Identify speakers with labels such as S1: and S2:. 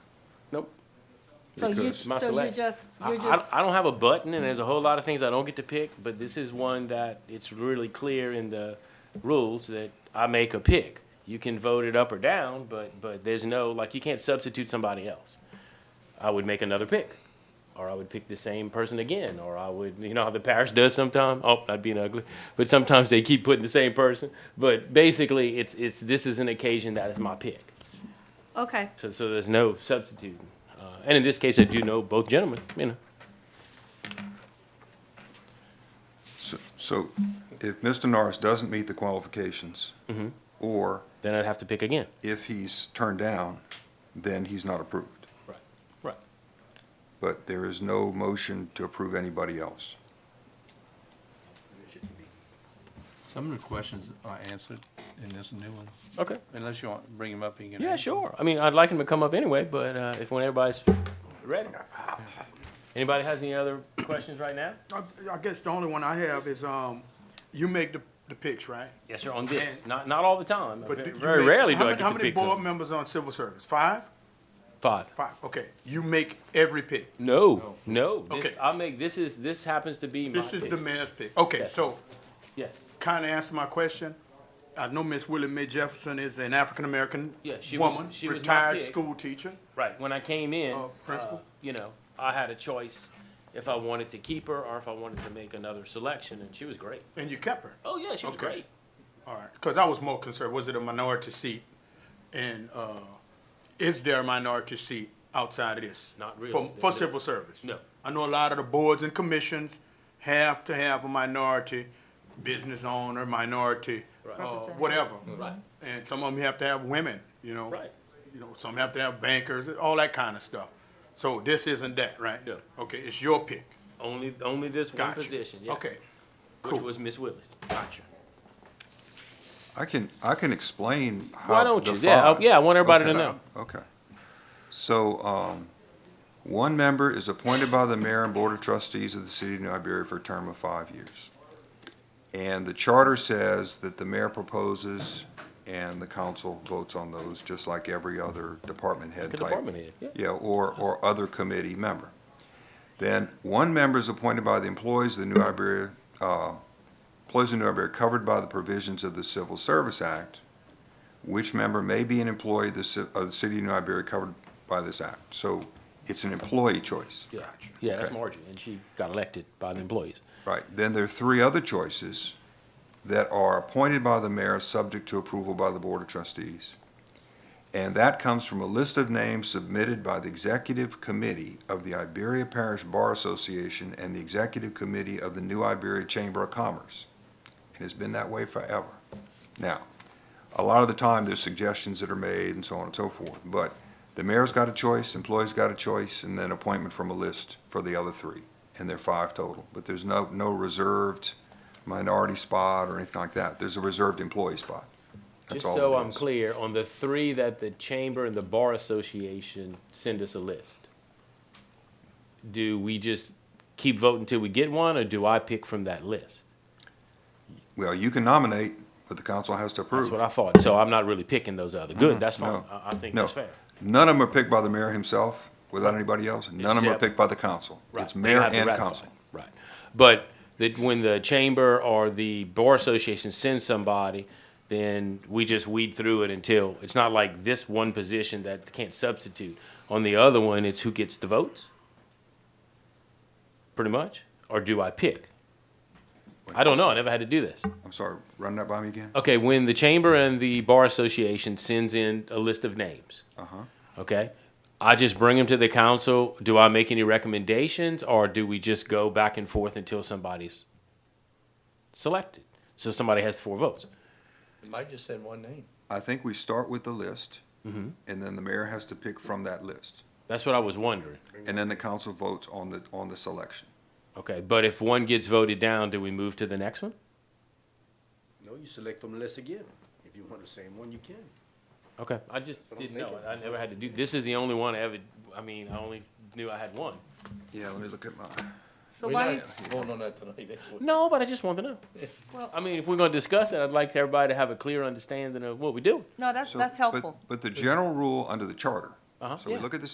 S1: Nope.
S2: So you,
S1: It's my
S2: so you
S1: select.
S2: just,
S1: I,
S2: you're
S1: I,
S2: just,
S1: I don't have a button, and there's a whole lot of things I don't get to pick, but this is one that it's really clear in the rules that I make a pick. You can vote it up or down, but, but there's no, like, you can't substitute somebody else. I would make another pick, or I would pick the same person again, or I would, you know how the parish does sometimes? Oh, I'd be ugly. But sometimes they keep putting the same person. But basically, it's, it's, this is an occasion that is my pick.
S2: okay,
S1: So, so there's no substitute. Uh, and in this case, I do know both gentlemen, you know.
S3: So- So if Mr. Norris doesn't meet the qualifications, or
S1: then I'd have to pick again.
S3: if he's turned down, then he's not approved.
S1: Right. Right.
S3: But there is no motion to approve anybody else.
S4: Some of the questions are answered in this new one,
S1: Okay.
S4: unless you want to bring them up again.
S1: Yeah, sure. I mean, I'd like him to come up anyway, but uh, if when everybody's ready. Anybody has any other questions right now?
S5: I, I guess the only one I have is, um, you make the, the picks, right?
S1: Yes, sir. On this,
S5: And-
S1: not not all the time.
S5: But
S1: Ve-
S5: you
S1: very
S5: make-
S1: rarely
S5: how
S1: do I
S5: many-
S1: get
S5: How
S1: to
S5: many
S1: pick
S5: board
S1: them.
S5: members on civil service? Five?
S1: five.
S5: Five, okay. You make every pick.
S1: No, no. This,
S5: Okay.
S1: I make this is this happens to be my.
S5: This is
S1: pick.
S5: the mayor's pick. Okay,
S1: Yes.
S5: so
S1: yes.
S5: kind of answer my question. I know Miss Willie Mae Jefferson is an African-American
S1: Yeah, she was-
S5: woman,
S1: she was my
S5: retired
S1: pick.
S5: school teacher.
S1: Right. When I came in,
S5: Uh, principal?
S1: uh, you know, I had a choice if I wanted to keep her or if I wanted to make another selection, and she was great.
S5: And you kept her.
S1: Oh yeah, she was
S5: Okay.
S1: great.
S5: All right, because I was more concerned, was it a minority seat? And, uh, is there a minority seat outside of this?
S1: Not really.
S5: For, for civil service?
S1: No.
S5: I know a lot of the boards and commissions have to have a minority business owner, minority, uh,
S2: Representative.
S5: whatever.
S1: Right.
S5: And some of them have to have women, you know?
S1: Right.
S5: You know, some have to have bankers, all that kind of stuff. So this isn't that, right?
S1: No.
S5: Okay, it's your pick.
S1: Only, only this one
S5: Gotcha.
S1: position, yes.
S5: Okay,
S1: Which
S5: cool.
S1: was Miss Willis.
S5: gotcha.
S3: I can, I can explain how.
S1: Why don't
S3: the
S1: you? Yeah, I-
S3: five-
S1: yeah, I want everybody to
S3: Okay.
S1: know.
S3: Okay. So, um, one member is appointed by the mayor and board of trustees of the city of New Iberia for a term of five years. And the charter says that the mayor proposes and the council votes on those, just like every other department head
S1: Like a
S3: type.
S1: department head, yeah.
S3: Yeah, or, or other committee member. Then one member is appointed by the employees of the New Iberia, uh, employees of New Iberia covered by the provisions of the Civil Service Act, which member may be an employee of the, ci- of the city of New Iberia covered by this act. So it's an employee choice.
S1: Yeah, yeah, that's
S3: Okay.
S1: Margie, and she got elected by the employees.
S3: Right, then there are three other choices that are appointed by the mayor, subject to approval by the Board of Trustees. And that comes from a list of names submitted by the Executive Committee of the Iberia Parish Bar Association and the Executive Committee of the New Iberia Chamber of Commerce. It has been that way forever. Now, a lot of the time, there's suggestions that are made and so on and so forth, but the mayor's got a choice, employees got a choice, and then appointment from a list for the other three, and there are five total. But there's no, no reserved minority spot or anything like that. There's a reserved employee spot. That's
S1: Just
S3: all
S1: so
S3: it
S1: I'm
S3: is.
S1: clear, on the three that the chamber and the bar association send us a list, do we just keep voting till we get one, or do I pick from that list?
S3: Well, you can nominate, but the council has to approve.
S1: That's what I thought, so I'm not really picking those other, good, that's fine,
S3: Mm-hmm. No.
S1: I, I think
S3: No.
S1: that's fair.
S3: None of them are picked by the mayor himself, without anybody else. None of them are
S1: Except-
S3: picked by the council.
S1: Right,
S3: It's
S1: they
S3: mayor
S1: have to
S3: and
S1: ratify.
S3: council.
S1: Right, but that when the chamber or the bar association sends somebody, then we just weed through it until, it's not like this one position that can't substitute. On the other one, it's who gets the votes? Pretty much, or do I pick? I don't know, I never had to do this.
S3: I'm sorry, run that by me again?
S1: Okay, when the chamber and the bar association sends in a list of names,
S3: Uh-huh.
S1: okay? I just bring them to the council. Do I make any recommendations or do we just go back and forth until somebody's selected? So somebody has four votes.
S4: Might just said one name.
S3: I think we start with the list,
S1: Mm-hmm.
S3: and then the mayor has to pick from that list.
S1: That's what I was wondering.
S3: And then the council votes on the, on the selection.
S1: Okay, but if one gets voted down, do we move to the next one?
S6: No, you select from the list again. If you want the same one, you can.
S1: Okay, I just
S6: I don't
S1: didn't
S6: think
S1: know.
S6: it-
S1: I never had to do, this is the only one I ever, I mean, I only knew I had one.
S3: Yeah, let me look at my,
S2: so
S1: We're
S2: why,
S1: not-
S2: you-
S4: Voting on that tonight.
S1: No, but I just want to know. I mean, if we're going to discuss it, I'd like everybody to have a clear understanding of what we do.
S2: no, that's,
S3: so-
S2: that's
S3: but-
S2: helpful.
S3: But the general rule under the charter.
S1: Uh-huh,
S3: So we
S1: yeah.
S3: look at the